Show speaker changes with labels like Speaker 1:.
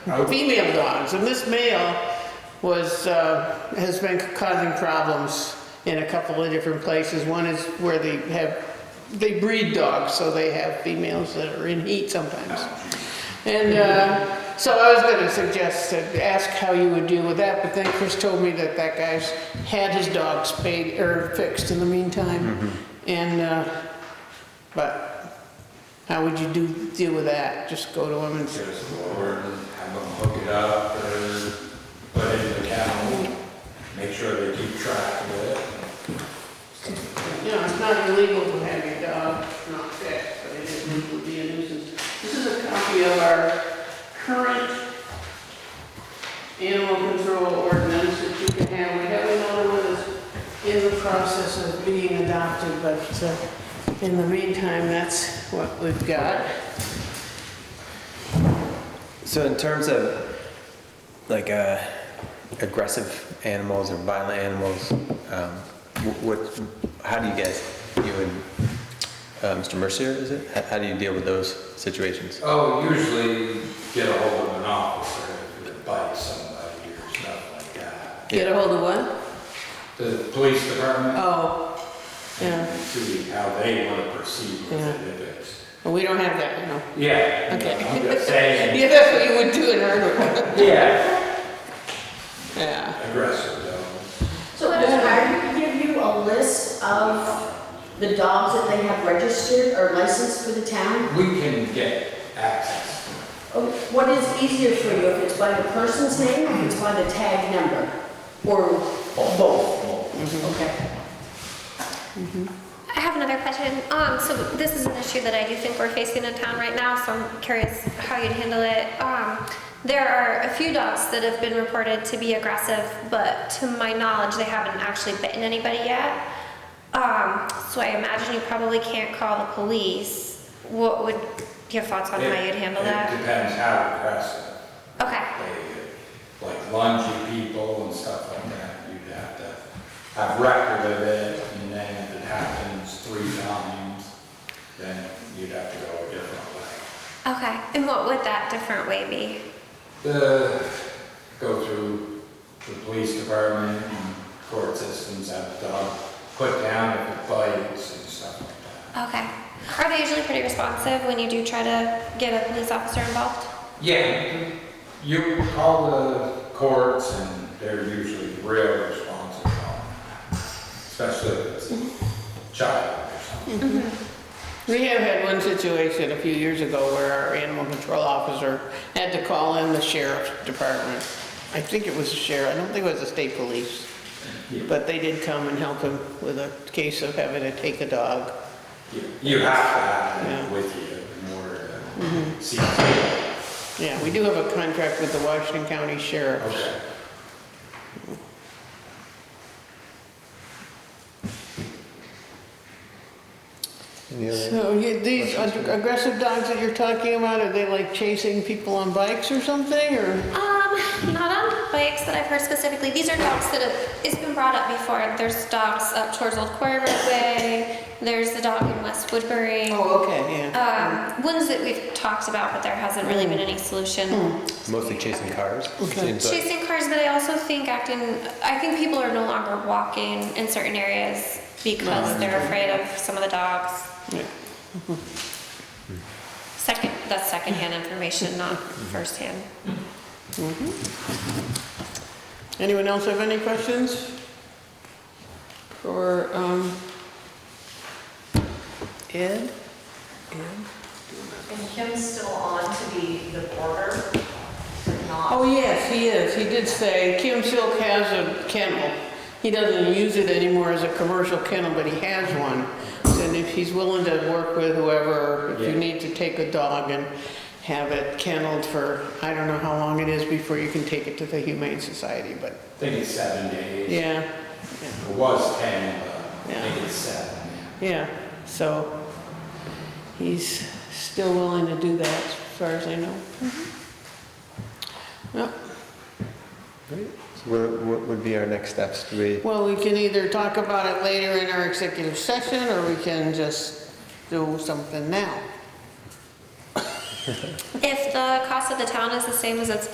Speaker 1: female dogs, and this male was, uh, has been causing problems in a couple of different places. One is where they have, they breed dogs, so they have females that are in heat sometimes. And uh, so I was gonna suggest, that ask how you would deal with that, but then Chris told me that that guy's had his dog spayed, or fixed in the meantime. And, uh, but how would you do, deal with that? Just go to him and say,
Speaker 2: Just go over and have them hook it up or put it in the kennel, make sure they keep track of it.
Speaker 1: You know, it's not illegal to have your dog not fixed, but it is legal to be a nuisance. This is a copy of our current animal control ordinance that you can have. We have another one that's in the process of being adopted, but uh, in the meantime, that's what we've got.
Speaker 3: So in terms of like uh, aggressive animals or violent animals, um, wh- what, how do you guys, you and uh, Mr. Mercier, is it? How, how do you deal with those situations?
Speaker 2: Oh, usually get a hold of an officer if it bites somebody or stuff like that.
Speaker 1: Get a hold of what?
Speaker 2: The police department,
Speaker 1: Oh, yeah,
Speaker 2: and see how they want to proceed with it if it's.
Speaker 1: Well, we don't have that, you know.
Speaker 2: Yeah,
Speaker 1: Okay.
Speaker 2: I'm just saying,
Speaker 1: Yeah, that's what you would do in our,
Speaker 2: yeah,
Speaker 1: yeah.
Speaker 2: aggressive though.
Speaker 4: So does Hiram give you a list of the dogs that they have registered or licensed for the town?
Speaker 2: We can get access.
Speaker 4: Or What is easier for you, if it's by the person's name, or if it's by the tag number? Or both? Okay.
Speaker 5: I have another question. Um, so this is an issue that I do think we're facing in town right now, so I'm curious how you'd handle it. Um, there are a few dogs that have been reported to be aggressive, but to my knowledge, they haven't actually bitten anybody yet. Um, so I imagine you probably can't call the police. What would your thoughts on how
Speaker 2: It-
Speaker 5: you'd handle
Speaker 2: It
Speaker 5: that?
Speaker 2: depends how aggressive.
Speaker 5: Okay.
Speaker 2: they, like lungy people and stuff like that, you'd have to have record of it, and then if it happens three times, then you'd have to go a different way.
Speaker 5: Okay. And what would that different way be?
Speaker 2: The, go through the police department and court systems, have the dog put down if it bites and stuff like that.
Speaker 5: Okay. Are they usually pretty responsive when you do try to get a police officer involved?
Speaker 2: Yeah, you call the courts and they're usually real responsible, especially if it's a child or something.
Speaker 1: We have had one situation a few years ago where our animal control officer had to call in the sheriff's department. I think it was the sheriff, I don't think it was the state police. But they did come and help him with a case of having to take a dog.
Speaker 2: You- You have to have
Speaker 1: Yeah. Mm-hmm.
Speaker 2: them with you in order to see. it.
Speaker 1: Yeah, we do have a contract with the Washington County Sheriff.
Speaker 2: Okay.
Speaker 1: So you- these ag- aggressive dogs that you're talking about, are they like chasing people on bikes or something, or?
Speaker 5: Um, not on bikes that I've heard specifically. These are dogs that have, it's been brought up before. There's dogs up towards Old Quarry Roadway. There's the dog in West Woodbury.
Speaker 1: Oh, okay, yeah.
Speaker 5: Um, ones that we've talked about, but there hasn't really been any solution.
Speaker 3: Mostly chasing cars?
Speaker 1: Okay.
Speaker 3: seems like.
Speaker 5: Chasing cars, but I also think acting, I think people are no longer walking in certain areas because they're afraid of some of the dogs.
Speaker 1: Yeah.
Speaker 5: Second, that's secondhand information, not firsthand.
Speaker 1: Anyone else have any questions? For, um, Ed?
Speaker 6: And Kim's still on to be the border, not.
Speaker 1: Oh, yes, he is. He did say, Kim Silk has a kennel. He doesn't use it anymore as a commercial kennel, but he has one. And if he's willing to work with whoever, if you
Speaker 2: Yeah.
Speaker 1: need to take a dog and have it kenneled for, I don't know how long it is before you can take it to the Humane Society, but,
Speaker 2: I think it's seven days.
Speaker 1: yeah,
Speaker 2: It was ten, but I
Speaker 1: Yeah.
Speaker 2: think it's seven.
Speaker 1: yeah. So he's still willing to do that, as far as I know. Yep.
Speaker 3: So What, what would be our next steps? Do we,
Speaker 1: Well, we can either talk about it later in our executive session, or we can just do something now.
Speaker 5: If the cost of the town is the same as it's